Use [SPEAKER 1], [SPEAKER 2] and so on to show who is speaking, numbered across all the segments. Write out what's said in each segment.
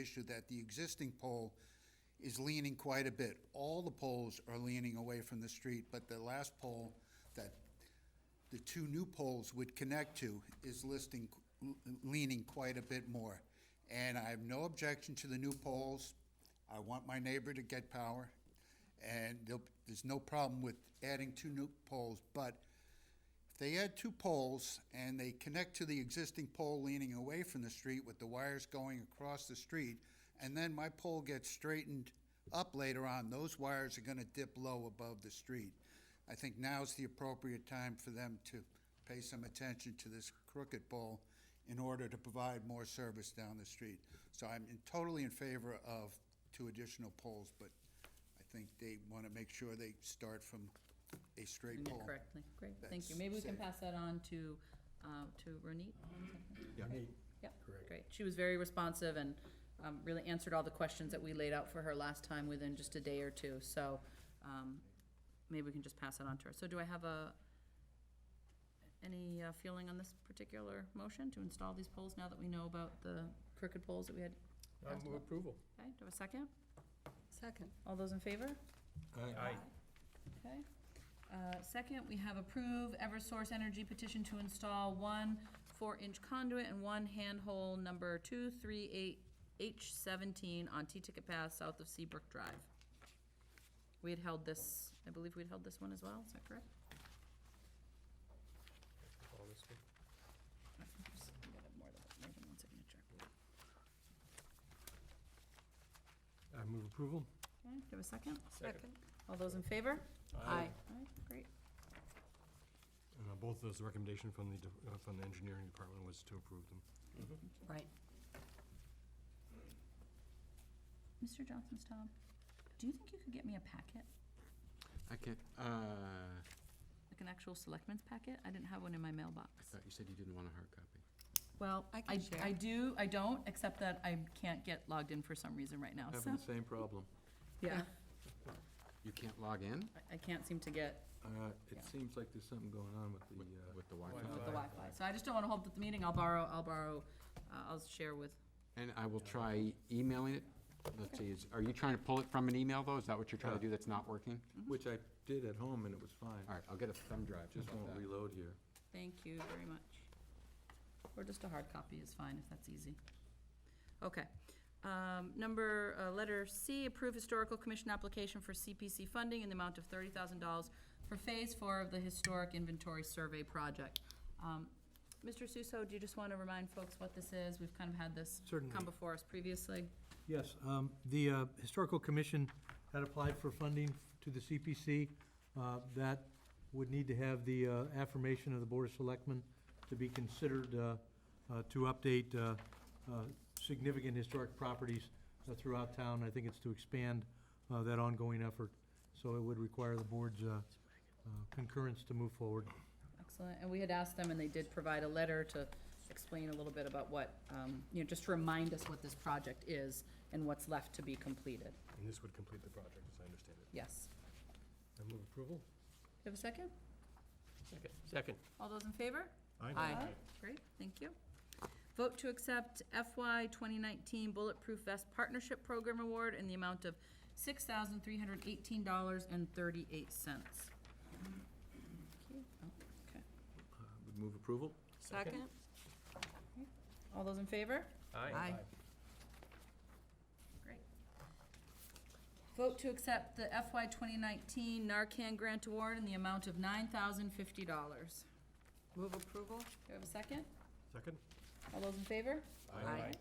[SPEAKER 1] issue that the existing pole is leaning quite a bit. All the poles are leaning away from the street, but the last pole that the two new poles would connect to is listing, leaning quite a bit more. And I have no objection to the new poles. I want my neighbor to get power. And there'll- there's no problem with adding two new poles, but if they add two poles and they connect to the existing pole leaning away from the street with the wires going across the street, and then my pole gets straightened up later on, those wires are gonna dip low above the street. I think now's the appropriate time for them to pay some attention to this crooked pole in order to provide more service down the street. So I'm in- totally in favor of two additional poles, but I think they wanna make sure they start from a straight
[SPEAKER 2] doing
[SPEAKER 1] pole.
[SPEAKER 2] that correctly. Great, thank you.
[SPEAKER 1] That's
[SPEAKER 2] Maybe we can
[SPEAKER 1] safe.
[SPEAKER 2] pass that on to, uh, to Ronit.
[SPEAKER 3] Yeah.
[SPEAKER 2] Yep,
[SPEAKER 3] Correct.
[SPEAKER 2] great. She was very responsive and um, really answered all the questions that we laid out for her last time within just a day or two. So um, maybe we can just pass that on to her. So do I have a, any uh, feeling on this particular motion to install these poles now that we know about the crooked poles that we had?
[SPEAKER 3] I'll
[SPEAKER 2] passed
[SPEAKER 3] move
[SPEAKER 2] up?
[SPEAKER 3] approval.
[SPEAKER 2] Okay, do I have a second?
[SPEAKER 4] Second.
[SPEAKER 2] All those in favor?
[SPEAKER 3] Aye.
[SPEAKER 2] Okay. Uh, Second, we have approve Eversource Energy petition to install one four-inch conduit and one handhole number two three eight H seventeen on T-Ticket Path south of Seabrook Drive. We had held this, I believe we'd held this one as well, is that correct?
[SPEAKER 3] All this one.
[SPEAKER 2] I think there's- we gotta have more than- more than one signature.
[SPEAKER 3] I move approval.
[SPEAKER 2] Okay, do I have a second?
[SPEAKER 4] Second.
[SPEAKER 2] All those in favor?
[SPEAKER 4] Aye.
[SPEAKER 2] All right, great.
[SPEAKER 3] And uh, both those recommendation from the, de- uh, from the engineering department was to approve them.
[SPEAKER 4] Right.
[SPEAKER 2] Mr. Johnson's Tom, do you think you could get me a packet,
[SPEAKER 5] I can't, uh, I
[SPEAKER 2] like an actual selectmen's packet? I didn't have one in my mailbox.
[SPEAKER 5] thought you said you didn't want a hard copy.
[SPEAKER 2] Well,
[SPEAKER 4] I
[SPEAKER 2] I,
[SPEAKER 4] can share.
[SPEAKER 2] I do, I don't, except that I can't get logged in for some reason right now, so.
[SPEAKER 6] Having the same problem.
[SPEAKER 2] Yeah,
[SPEAKER 5] You can't log in
[SPEAKER 2] I- I can't seem to get
[SPEAKER 6] Uh,
[SPEAKER 2] Yeah.
[SPEAKER 6] It seems like there's something going on with the,
[SPEAKER 5] with
[SPEAKER 6] uh,
[SPEAKER 5] with the Wi-Fi?
[SPEAKER 2] with the Wi-Fi, so I just don't wanna hold up the meeting, I'll borrow, I'll borrow, uh, I'll share with,
[SPEAKER 5] And I will try emailing it. Let's see, is- are you trying to pull it from an email, though? Is that what you're trying to
[SPEAKER 3] Uh,
[SPEAKER 6] Yeah.
[SPEAKER 5] do that's not working?
[SPEAKER 6] which I did at home and it was fine.
[SPEAKER 5] All right, I'll get a thumb drive. How
[SPEAKER 6] Just
[SPEAKER 5] about
[SPEAKER 6] won't
[SPEAKER 5] that?
[SPEAKER 6] reload here.
[SPEAKER 2] thank you very much. Or just a hard copy is fine, if that's easy. Okay, um, number, uh, letter C, approve historical commission application for CPC funding in the amount of thirty thousand dollars for phase four of the historic inventory survey project. Um, Mr. Suso, do you just wanna remind folks what this is? We've kind of had this
[SPEAKER 7] Certainly.
[SPEAKER 2] come before us previously.
[SPEAKER 7] Yes, um, the uh, Historical Commission had applied for funding to the CPC. uh, That would need to have the uh, affirmation of the Board of Selectmen to be considered uh, uh, to update uh, uh, significant historic properties uh, throughout town. I think it's to expand uh, that ongoing effort. So it would require the board's uh, uh, concurrence to move forward.
[SPEAKER 2] Excellent, and we had asked them, and they did provide a letter to explain a little bit about what, um, you know, just to remind us what this project is and what's left to be completed.
[SPEAKER 3] And this would complete the project, as I understand it.
[SPEAKER 2] Yes.
[SPEAKER 3] I move approval.
[SPEAKER 2] Do you have a second?
[SPEAKER 3] Second.
[SPEAKER 2] All those in favor?
[SPEAKER 4] Aye.
[SPEAKER 2] Great, thank you. Vote to accept FY 2019 Bulletproof Vest Partnership Program Award in the amount of $6,318.38.
[SPEAKER 6] Uh, Would move approval?
[SPEAKER 4] Second?
[SPEAKER 2] All those in favor?
[SPEAKER 4] Aye.
[SPEAKER 2] Great. Vote to accept the FY 2019 Narcan Grant Award in the amount of $9,050. Do I
[SPEAKER 4] Move approval?
[SPEAKER 2] have a second?
[SPEAKER 3] Second?
[SPEAKER 2] All those in favor?
[SPEAKER 4] Aye.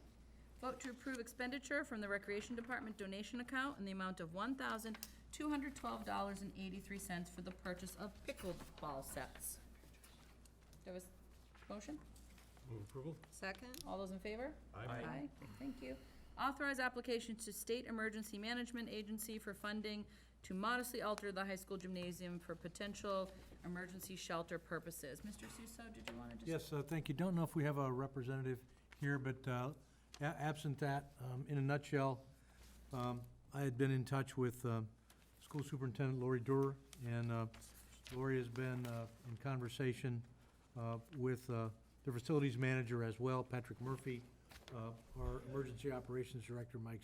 [SPEAKER 2] Vote to approve expenditure from the Recreation Department donation account in the amount of one thousand two hundred twelve dollars and eighty-three cents for the purchase of pickleball sets. There was motion?
[SPEAKER 3] Move approval.
[SPEAKER 4] Second?
[SPEAKER 2] All those in favor?
[SPEAKER 3] Aye.
[SPEAKER 2] Great, Thank you. Authorize application to State Emergency Management Agency for funding to modestly alter the high school gymnasium for potential emergency shelter purposes. Mr. Suso, did you wanna just?
[SPEAKER 7] Yes, uh, thank you. Don't know if we have a representative here, but uh, a- absent that, um, in a nutshell, um, I had been in touch with um, School Superintendent Lori Durer, and uh, Lori has been uh, in conversation uh, with uh, the facilities manager as well, Patrick Murphy, uh, our Emergency Operations Director, Mike